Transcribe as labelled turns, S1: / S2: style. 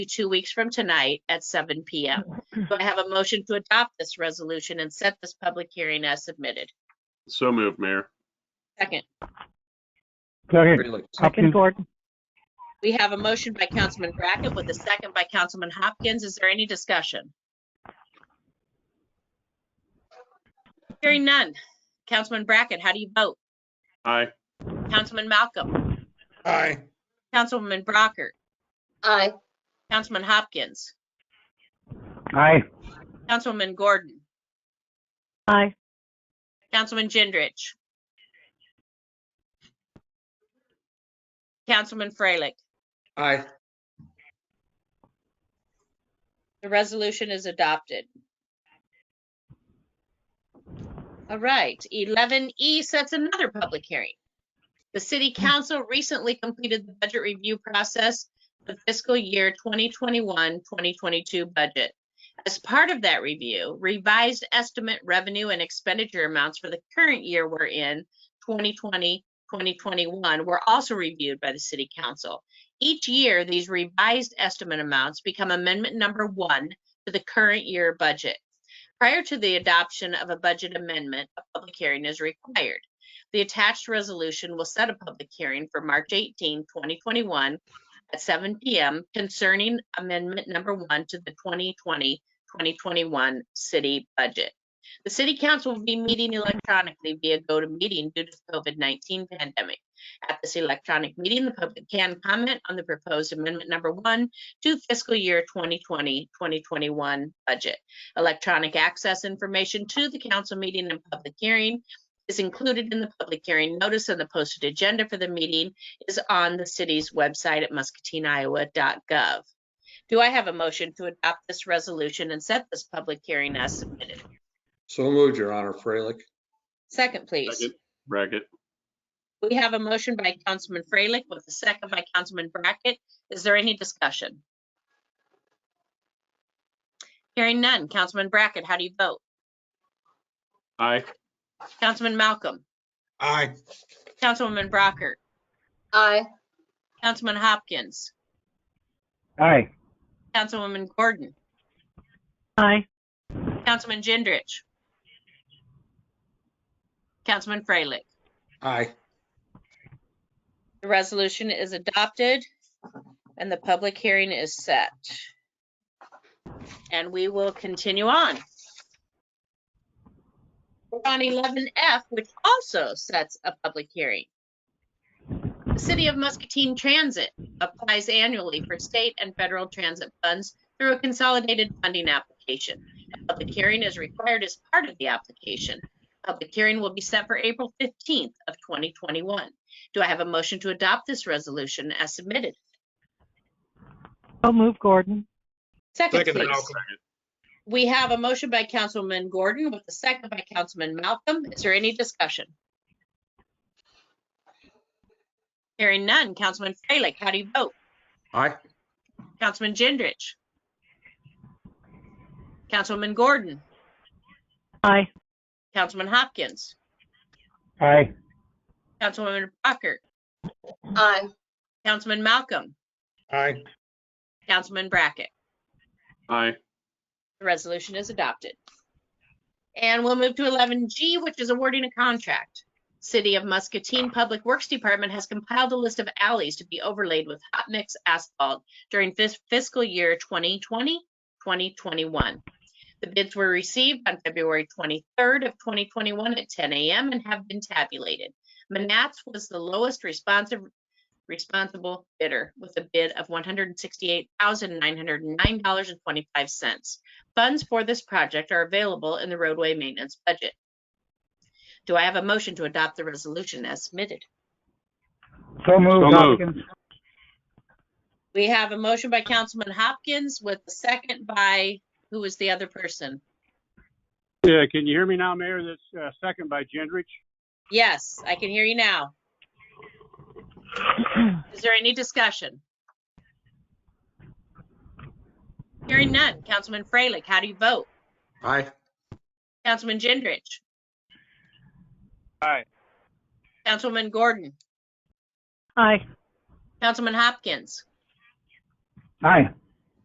S1: you two weeks from tonight at seven PM. Do I have a motion to adopt this resolution and set this public hearing as submitted?
S2: So moved, Mayor.
S1: Second,
S3: Second,
S4: Really?
S3: Hopkins.
S5: Second Gordon.
S1: we have a motion by Councilman Brackett with a second by Councilman Hopkins. Is there any discussion? Hearing none. Councilman Brackett, how do you vote?
S2: Aye.
S1: Councilman Malcolm?
S4: Aye.
S1: Councilwoman Brockert?
S6: Aye,
S1: Councilman Hopkins?
S3: Aye.
S1: Councilwoman Gordon?
S5: Aye.
S1: Councilman Gendrich? Councilman Freilich?
S4: Aye.
S1: The resolution is adopted. All right, eleven E sets another public hearing. The city council recently completed the budget review process for fiscal year 2021-2022 budget. As part of that review, revised estimate revenue and expenditure amounts for the current year we're in, 2020, 2021, were also reviewed by the city council. Each year, these revised estimate amounts become amendment number one to the current year budget. Prior to the adoption of a budget amendment, a public hearing is required. The attached resolution will set a public hearing for March 18, 2021 at 7 PM concerning amendment number one to the 2020, 2021 city budget. The city council will be meeting electronically via GoToMeeting due to the COVID-19 pandemic. At this electronic meeting, the public can comment on the proposed amendment number one to fiscal year 2020, 2021 budget. Electronic access information to the council meeting and public hearing is included in the public hearing notice and the posted agenda for the meeting is on the city's website at muscatineiowa.gov. Do I have a motion to adopt this resolution and set this public hearing as submitted?
S4: So moved, Your Honor, Freilich.
S1: Second, please.
S2: Second. Brackett.
S1: We have a motion by Councilman Freilich with a second by Councilman Brackett. Is there any discussion? Hearing none. Councilman Brackett, how do you vote?
S2: Aye.
S1: Councilman Malcolm,
S4: Aye.
S1: Councilwoman Brockert,
S6: aye,
S1: Councilman Hopkins,
S3: Aye.
S1: Councilwoman Gordon,
S5: Aye.
S1: Councilman Gendrich, Councilman Freilich.
S4: Aye.
S1: The resolution is adopted and the public hearing is set. And we will continue on. We're on eleven F, which also sets a public hearing. The City of Muscatine Transit applies annually for state and federal transit funds through a consolidated funding application. A public hearing is required as part of the application. Public hearing will be set for April fifteenth of twenty twenty-one. Do I have a motion to adopt this resolution as submitted?
S5: So move Gordon.
S1: Second,
S4: Second,
S1: please.
S4: Malcolm.
S1: We have a motion by Councilman Gordon with a second by Councilman Malcolm. Is there any discussion? Hearing none. Councilman Freilich, how do you vote?
S4: Aye.
S1: Councilman Gendrich? Councilwoman Gordon?
S5: Aye.
S1: Councilman Hopkins?
S3: Aye.
S1: Councilwoman Brockert?
S6: aye,
S1: Councilman Malcolm?
S4: Aye.
S1: Councilman Brackett?
S2: Aye.
S1: The resolution is adopted. And we'll move to eleven G, which is awarding a contract. City of Muscatine Public Works Department has compiled a list of alleys to be overlaid with hot mix asphalt during fis- fiscal year 2020, 2021. The bids were received on February twenty-third of twenty twenty-one at ten AM and have been tabulated. Manats was the lowest responsive responsible bidder with a bid of one hundred and sixty-eight thousand nine hundred and nine dollars and twenty-five cents. Funds for this project are available in the roadway maintenance budget. Do I have a motion to adopt the resolution as submitted?
S3: So moved,
S2: So moved.
S3: Hopkins.
S1: We have a motion by Councilman Hopkins with the second by, who was the other person?
S7: Yeah, can you hear me now, Mayor? That's uh, second by Gendrich.
S1: Yes, I can hear you now. Is there any discussion? Hearing none. Councilman Freilich, how do you vote?
S4: Aye.
S1: Councilman Gendrich?
S7: Aye.
S1: Councilwoman Gordon?
S5: Aye.
S1: Councilman Hopkins?
S3: Aye.